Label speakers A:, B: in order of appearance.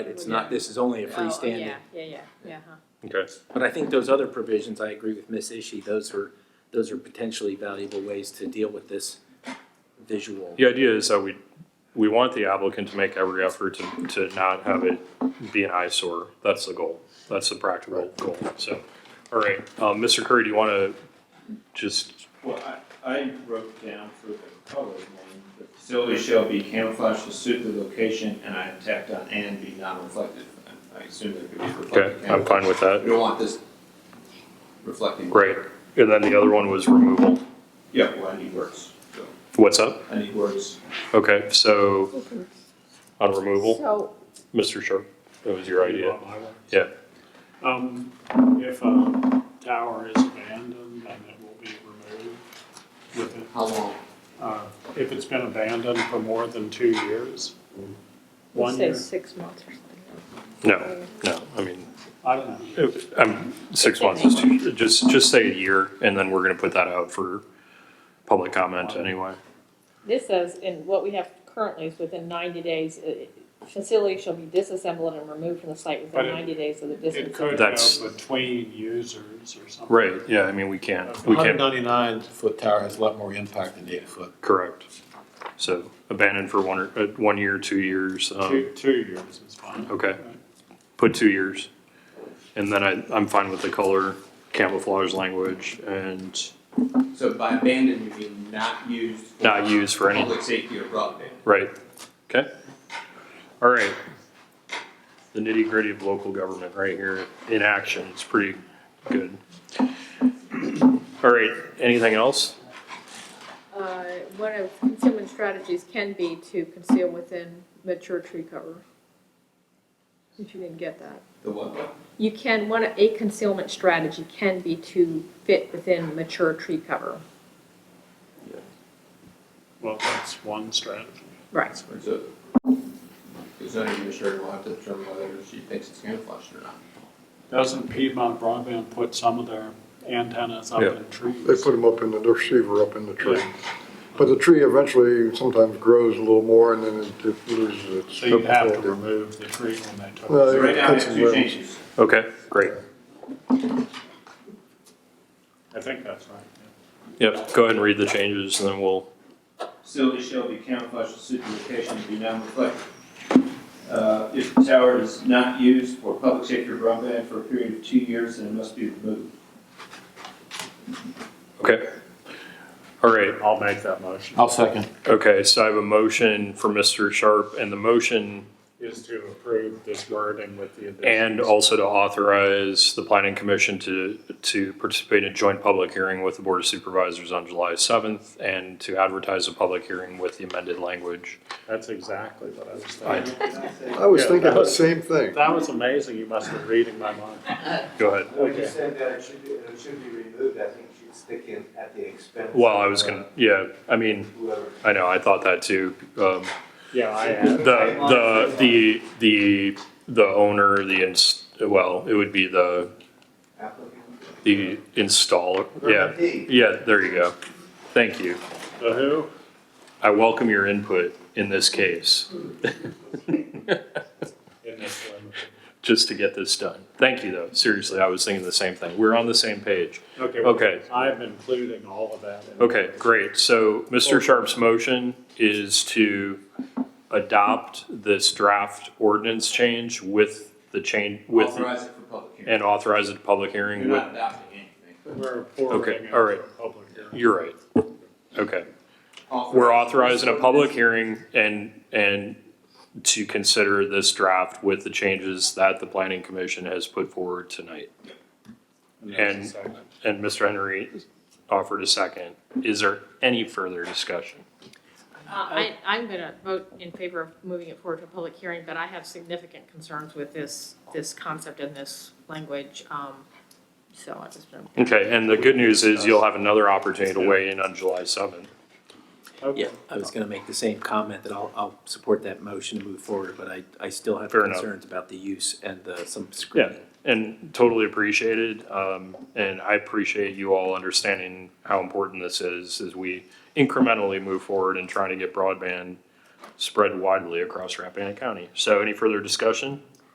A: It's not, this is only a freestanding.
B: Oh, Yeah, yeah, yeah, yeah, uh-huh. huh.
C: Okay.
A: But I think those other provisions, I agree with Miss Ishi, those are, those are potentially valuable ways to deal with this visual.
C: The idea is that we, we want the applicant to make every effort to, to not have it be an eyesore. That's the goal. That's the practical goal, so. All right, um, Mr. Curry, do you wanna just,
D: Well, I, I wrote down for the colored one, the facility shall be camouflaged to suit the location and I tacked on and be non-reflective. I- I assume that could be
C: okay,
D: reflective.
C: I'm fine with
D: We
C: that.
D: don't want this reflecting.
C: Great. And then the other one was removal.
D: Yeah, well, I need words, so,
C: What's up?
D: I need words.
C: Okay, so on removal,
B: So,
C: Mr. Sharp, that was your idea. Yeah.
E: Um, if a tower is abandoned, then it will be removed with it.
D: How long?
E: Uh, if it's been abandoned for more than two years,
B: we
E: one
B: say
E: year,
B: six months or something.
C: No, no, I mean,
E: I don't know.
C: If- Um, six months is too, just, just say a year, and then we're gonna put that out for public comment anyway.
B: This says, and what we have currently is within ninety days, uh, facility shall be disassembled and removed from the site
E: But
B: within
E: it-
B: ninety days of the
E: It
B: disassemblage.
E: could
C: That's-
E: go between users or something.
C: Right, yeah, I mean, we can't, we
F: Hundred
C: can't,
F: ninety-nine foot tower has a lot more impact than eight foot.
C: correct. So abandoned for one, or- uh, one year, two years, um,
E: Two, two years is fine.
C: okay, put two years. And then I, I'm fine with the color camouflage language and
D: So by abandoned, you mean not used. for
C: not used for any,
D: Public safety or broadband.
C: right, okay? All right. The nitty gritty of local government right here in action, it's pretty good. All right, anything else?
B: Uh, one of concealment strategies can be to conceal within mature tree cover. If you didn't get that.
D: The what?
B: You can, one, a concealment strategy can be to fit within mature tree cover.
E: Well, that's one strategy.
B: Right.
D: So, the zoning administrator will have to determine whether she thinks it's camouflaged or not.
E: Doesn't Piedmont Broadband put some of their antennas up
C: Yeah.
E: in trees?
G: They put them up in the, the receiver up in the tree. But the tree eventually sometimes grows a little more and then it- it loses its.
E: So you'd have to
G: ability.
E: remove the tree when they took
G: Well,
E: it.
D: So right now, I have
G: That's
D: two
G: well.
D: changes.
C: Okay, great.
E: I think that's right. yeah.
C: Yep, go ahead and read the changes and then we'll,
D: Facility shall be camouflaged to suit the location and be non-reflective. Uh, If the tower is not used for public safety or broadband for a period of two years, then it must be removed.
C: okay. All right,
E: I'll make that motion,
F: I'll second.
C: okay, so I have a motion for Mr. Sharp and the motion
E: is to approve this wording with the additions.
C: and also to authorize the planning commission to, to participate in a joint public hearing with the board of supervisors on July seventh and to advertise a public hearing with the amended language.
E: That's exactly what I was
C: I-
E: thinking.
G: I was
E: Yeah,
G: thinking
E: that
G: the
E: was-
G: same thing.
E: That was amazing, you must have been reading my mind.
C: Go ahead.
H: When you said that it should be, it should be removed, I think you should stick in at the expense.
C: Well, I was
H: of,
C: gonna, yeah, I mean,
H: uh, Whoever.
C: I know, I thought that too. Um,
E: Yeah, I am.
C: the, the, the, the, the owner, the ins, well, it would be the,
H: Applicant.
C: the installer, yeah.
H: Number D.
C: Yeah, there you go. Thank you.
E: The who?
C: I welcome your input in this case,
E: In this one.
C: just to get this done. Thank you, though. Seriously, I was thinking the same thing. We're on the same page.
E: Okay. well,
C: Okay,
E: I'm including all of that. in-
C: okay, great. So Mr. Sharp's motion is to adopt this draft ordinance change with the change, with,
D: Authorize it for public hearing.
C: and authorize a public hearing
D: You're
C: with,
D: not adopting anything.
E: We're forwarding it
C: all
E: to
C: right.
E: a public hearing.
C: you're right. Okay. We're authorizing a public hearing and, and to consider this draft with the changes that the planning commission has put forward tonight.
E: there's a
C: And-
E: second.
C: And Mr. Henry offered a second. Is there any further discussion?
B: Uh, I, I'm gonna vote in favor of moving it forward to a public hearing, but I have significant concerns with this, this concept and this language, um, so I just don't.
C: Okay, and the good news is you'll have another opportunity to weigh in on July seventh.
A: Yeah,
E: Okay.
A: I was gonna make the same comment that I'll, I'll support that motion to move forward, but I, I still have
C: Fair enough.
A: concerns about the use and the, some
C: Yeah,
A: screening.
C: and totally appreciated. Um, and I appreciate you all understanding how important this is as we incrementally move forward and trying to get broadband spread widely across Rappahannock County. So any further discussion?